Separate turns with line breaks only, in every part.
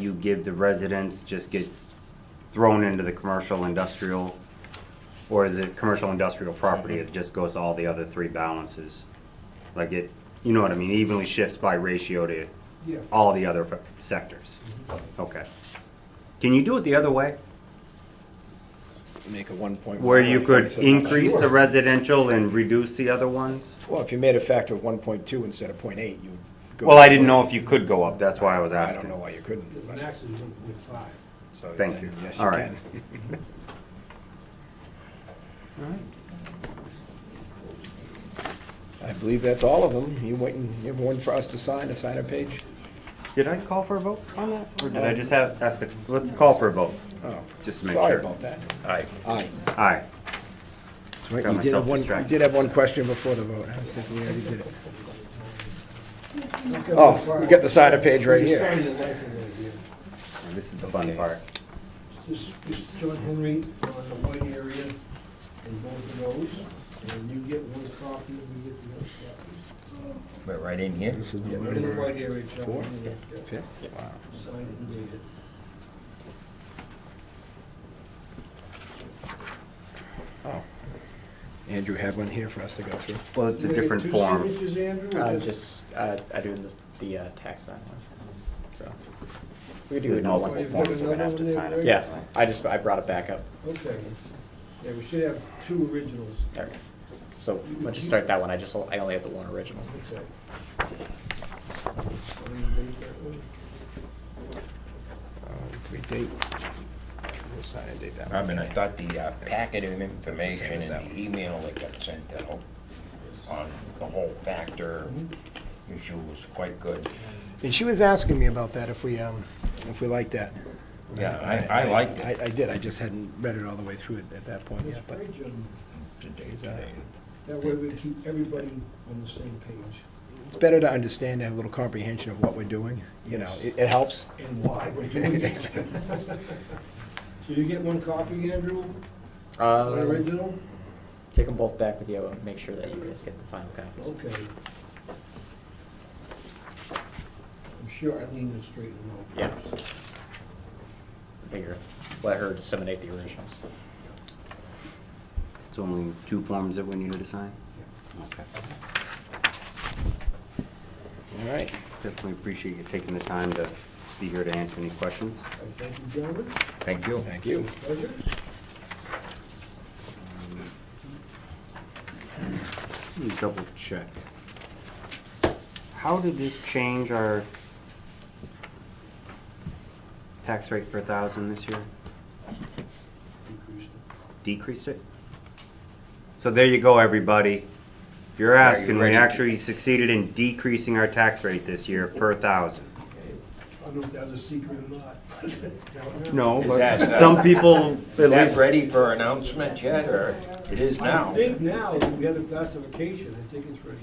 you give the residents just gets thrown into the commercial industrial? Or is it commercial industrial property, it just goes to all the other three balances? Like it, you know what I mean, evenly shifts by ratio to
Yeah.
all the other f- sectors? Okay. Can you do it the other way?
Make a one point.
Where you could increase the residential and reduce the other ones?
Well, if you made a factor of one point two instead of point eight, you would go.
Well, I didn't know if you could go up, that's why I was
I don't
asking.
know why you couldn't.
The
but-
max is one point five.
so
Thank
then
you.
Yes,
All
you
right.
can. I believe that's all of them. You waiting, you have one for us to sign, a sign-up page?
Did I call for a vote on that, or did I just have, ask the, let's call for a vote,
Oh,
just to make
sorry
sure.
about that.
Aye.
Aye.
Aye.
Right,
Got
you did have
myself
one, you
distracted.
did have one question before the vote. I was thinking we already did it.
Look at
Oh, we got the sign-up page right
You
here.
signed the life of it, yeah.
And This is the fun part.
This is John Henry on the white area in both of those, and you get one copy and we get the other copy.
But right in here?
This is
Yeah, Right in the
number
white area, John.
four,
and, uh,
fifth.
Signed and dated.
Andrew had one here for us to go through.
Well, it's a
You gonna get
different form.
Two signatures, Andrew? or
Uh, just, uh, I do this, the, uh, tax sign one, so. We do
There's
it all
multiple
You've
one.
got
forms, we're gonna have to
another
sign
one there,
it.
Yeah, I just, I brought it back up.
Okay, yeah, we should have two originals.
There we go. So, why don't you start that one, I just, I only have the one original.
Okay. Want me to date that one?
Um, We date, we'll sign and date that
I
one.
mean, I thought the uh, packet of
It's the same
information
as that
and the email that got sent out on the whole factor issue was quite good.
And she was asking me about that, if we, um, if we liked that.
Yeah, I, I liked it.
I, I did, I just hadn't read it all the way through at- at that point,
That's
but,
great, John.
Today's
uh,
day.
That way we keep everybody on the same page
It's better to understand, have a little comprehension of what we're doing, you know, it, it helps.
and why we're doing it. So you get one copy, Andrew, one
Uh,
original?
take them both back with you, and make sure that you guys get the final copies.
Okay. I'm sure Eileen will straighten them out.
Yeah. Figure, let her disseminate the originals.
It's only two forms that we needed to sign? Okay.
All right,
Definitely appreciate you taking the time to be here to answer any questions.
I Thank you, gentlemen.
Thank you.
thank you.
Pleasure.
Let me double check. How did this change our tax rate per thousand this year?
Decreased it.
Decreased it? So there you go, everybody. You're
Are you
asking, we
ready?
actually succeeded in decreasing our tax rate this year per thousand.
I don't know if that was a secret or not, but down there.
No,
Is
but
that-
some people, at
Is that
least,
ready for announcement yet, or it is
I
now?
think now, that we have a classification, I think it's ready.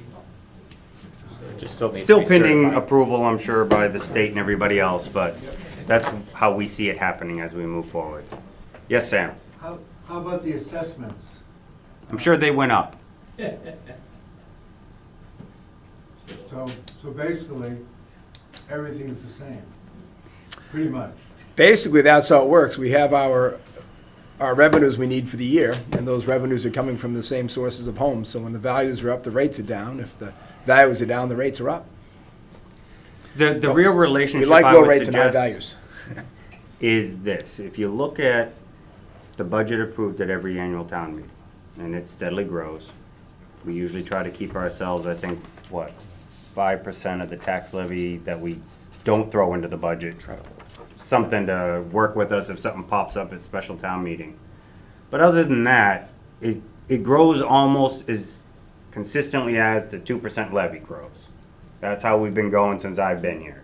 Just still need to
still
be
pending
certified.
approval, I'm sure, by the state and everybody else, but that's how we see it happening as we move forward. Yes, Sam?
How, how about the assessments?
I'm sure they went up.
So, so basically, everything's the same, pretty much.
Basically, that's how it works. We have our, our revenues we need for the year, and those revenues are coming from the same sources of homes. So when the values are up, the rates are down. If the values are down, the rates are up.
The, the real
We
relationship
like
I
low
would
rates and high
suggest
values.
is this. If you look at the budget approved at every annual town meeting, and it steadily grows, we usually try to keep ourselves, I think, what, five percent of the tax levy that we don't throw into the budget. Something to work with us if something pops up at special town meeting. But other than that, it, it grows almost as consistently as the two percent levy grows. That's how we've been going since I've been here.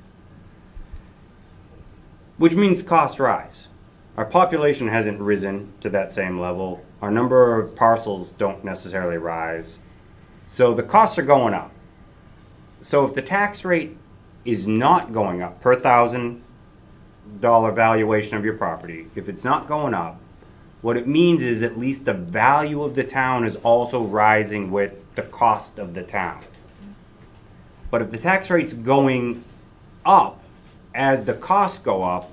Which means costs rise. Our population hasn't risen to that same level. Our number of parcels don't necessarily rise. So the costs are going up. So if the tax rate is not going up per thousand dollar valuation of your property, if it's not going up, what it means is at least the value of the town is also rising with the cost of the town. But if the tax rate's going up, as the costs go up,